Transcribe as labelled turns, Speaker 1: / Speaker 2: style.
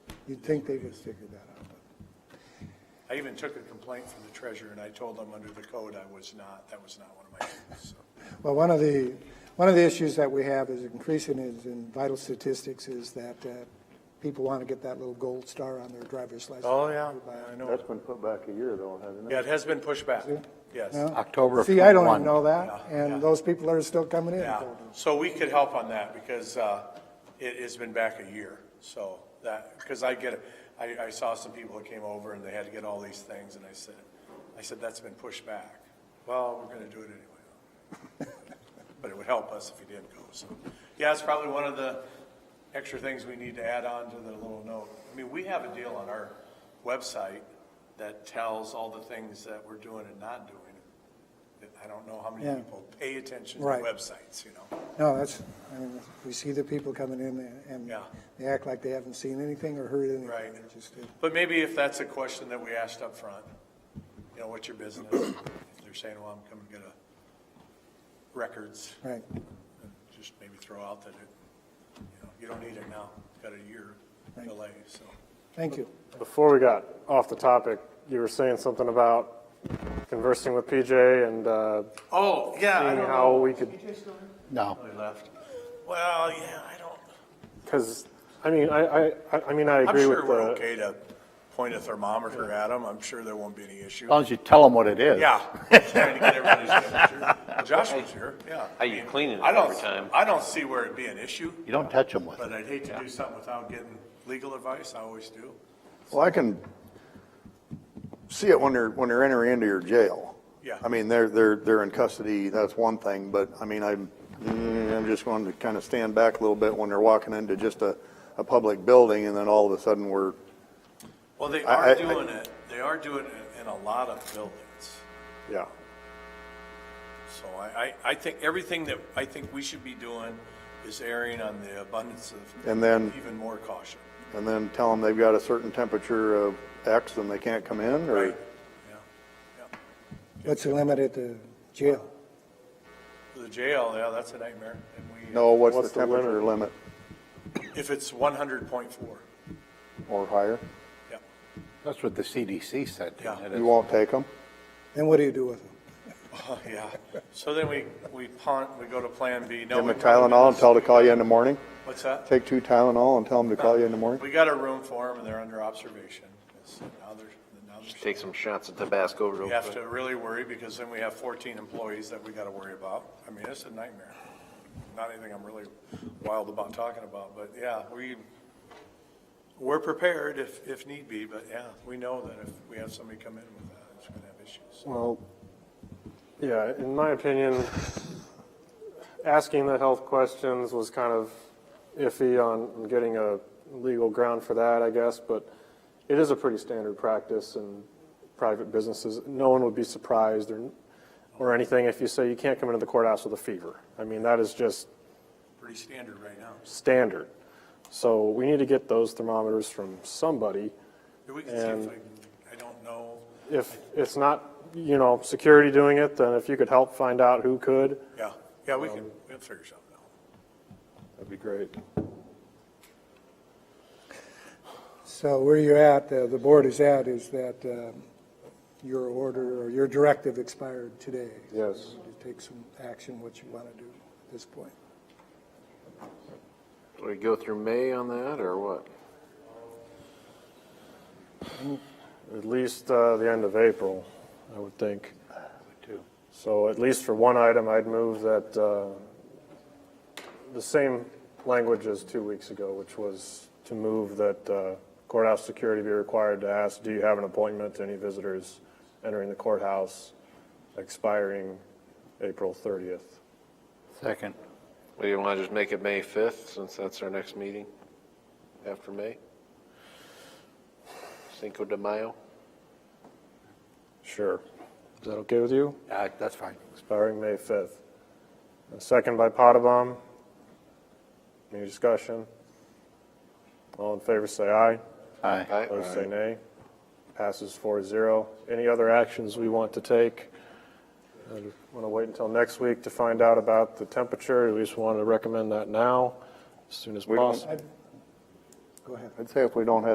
Speaker 1: You'd think they would figure that out.
Speaker 2: I even took a complaint from the treasurer, and I told them under the code I was not, that was not one of my duties, so.
Speaker 1: Well, one of the, one of the issues that we have is increasing is in vital statistics is that uh, people want to get that little gold star on their driver's license.
Speaker 2: Oh, yeah, I know.
Speaker 3: That's been put back a year though, hasn't
Speaker 2: Yeah,
Speaker 3: it?
Speaker 2: it has been pushed back, yes.
Speaker 1: No?
Speaker 4: October of
Speaker 1: See, I don't even
Speaker 4: 21.
Speaker 1: know that,
Speaker 2: Yeah, yeah.
Speaker 1: and those people are still coming in.
Speaker 2: Yeah, so we could help on that because uh, it has been back a year. So that, because I get, I, I saw some people that came over and they had to get all these things and I said, I said, that's been pushed back. Well, we're going to do it anyway. But it would help us if you didn't go, so. Yeah, it's probably one of the extra things we need to add on to the little note. I mean, we have a deal on our website that tells all the things that we're doing and not doing. I don't know how
Speaker 1: Yeah.
Speaker 2: many people pay attention to
Speaker 1: Right.
Speaker 2: websites, you know?
Speaker 1: No, that's, I mean, we see the people coming in and
Speaker 2: Yeah.
Speaker 1: they act like they haven't seen anything or heard anything.
Speaker 2: Right.
Speaker 1: It's just, uh,
Speaker 2: But maybe if that's a question that we asked up front, you know, what's your business? If they're saying, well, I'm coming to get a records,
Speaker 1: Right,
Speaker 2: then just maybe throw out that it, you know, you don't need it now, You've got a year delay, so.
Speaker 1: thank you.
Speaker 3: Before we got off the topic, you were saying something about conversing with PJ and, uh,
Speaker 2: Oh, yeah, I
Speaker 3: seeing
Speaker 2: don't
Speaker 3: how
Speaker 2: know.
Speaker 3: we could,
Speaker 4: No.
Speaker 2: They Oh, left. Well, yeah, I don't,
Speaker 3: cause, I mean, I, I- I, I mean, I
Speaker 2: I'm
Speaker 3: agree with
Speaker 2: sure we're
Speaker 3: the,
Speaker 2: okay to point a thermometer at them, I'm sure there won't be any issue.
Speaker 4: As long as you tell them what it is.
Speaker 2: Yeah. Trying to get everybody's temperature. Josh was here, yeah.
Speaker 5: How you cleaning it
Speaker 2: I don't-
Speaker 5: every time?
Speaker 2: I don't see where it'd be an issue.
Speaker 4: You don't touch them with it.
Speaker 2: But I'd hate to do something without getting legal advice, I always do.
Speaker 6: Well, I can see it when they're, when they're entering into your jail.
Speaker 2: Yeah.
Speaker 6: I mean, they're, they're, they're in custody, that's one thing, but I mean, I'm, mm, I'm just going to kind of stand back a little bit when they're walking into just a, a public building and then all of a sudden we're,
Speaker 2: Well, they
Speaker 6: I- I-
Speaker 2: are
Speaker 6: I-
Speaker 2: doing it, they are doing it in a lot of buildings.
Speaker 3: yeah.
Speaker 2: So I, I, I think everything that I think we should be doing is erring on the abundance of.
Speaker 6: And then-
Speaker 2: Even more caution.
Speaker 6: and then tell them they've got a certain temperature of X and they can't come in or?
Speaker 2: Yeah.
Speaker 1: What's the limit at the jail?
Speaker 2: The jail, yeah, that's a nightmare. And we- uh,
Speaker 6: No, what's
Speaker 3: What's
Speaker 6: the
Speaker 3: the limit?
Speaker 6: temperature limit
Speaker 2: If it's one hundred point four,
Speaker 6: or higher?
Speaker 2: yeah,
Speaker 4: That's what the CDC said. didn't
Speaker 2: Yeah.
Speaker 4: it?
Speaker 6: You won't take them?
Speaker 1: Then what do you do with them?
Speaker 2: oh, yeah. So then we, we punt, we go to plan B. No,
Speaker 6: Give them a
Speaker 2: we gotta do
Speaker 6: Tylenol and
Speaker 2: this.
Speaker 6: tell them to call you in the morning?
Speaker 2: What's that?
Speaker 6: Take two Tylenol and tell them to call you in the morning?
Speaker 2: We got a room for them and they're under observation. So Now they're, now they're.
Speaker 5: Take some shots of Tabasco real
Speaker 2: We
Speaker 5: quick.
Speaker 2: have to really worry because then we have 14 employees that we got to worry about. I mean, it's a nightmare. Not anything I'm really wild about talking about, but yeah, we, we're prepared if, if need be, but yeah, we know that if we have somebody come in with that, it's going to have issues.
Speaker 3: Well, yeah, in my opinion, asking the health questions was kind of iffy on getting a legal ground for that, I guess, but it is a pretty standard practice in private businesses. No one would be surprised or, or anything if you say you can't come into the courthouse with a fever. I mean, that is just
Speaker 2: Pretty standard right now.
Speaker 3: standard. So we need to get those thermometers from somebody.
Speaker 2: We can see if
Speaker 3: And-
Speaker 2: I, I don't know,
Speaker 3: If it's not, you know, security doing it, then if you could help find out who could,
Speaker 2: yeah, yeah, we can, we'll figure something out.
Speaker 3: That'd be great.
Speaker 1: So where you're at, uh, the board is at, is that um, your order or your directive expired today.
Speaker 3: Yes.
Speaker 1: You Take some action, what you want to do at this point.
Speaker 5: Do we go through May on that or what?
Speaker 3: At least uh, the end of April, I would think. So at least for one item, I'd move that uh, the same language as two weeks ago, which was to move that uh, courthouse security be required to ask, do you have an appointment to any visitors entering the courthouse expiring April 30th?
Speaker 4: Second.
Speaker 5: Do you want to just make it May 5th, since that's our next meeting after May? Cinco de Mayo?
Speaker 3: Sure. Is that okay with you?
Speaker 4: Uh, That's fine.
Speaker 3: expiring May 5th. A Second by Potabom. Any discussion? All in favor, say aye.
Speaker 4: Aye.
Speaker 5: Aye.
Speaker 3: Opposed, say nay. Passes 4-0. Any other actions we want to take? Want to wait until next week to find out about the temperature? We just want to recommend that now, as soon as
Speaker 6: We don't-
Speaker 3: possible.
Speaker 1: Go ahead.
Speaker 6: I'd say if we don't have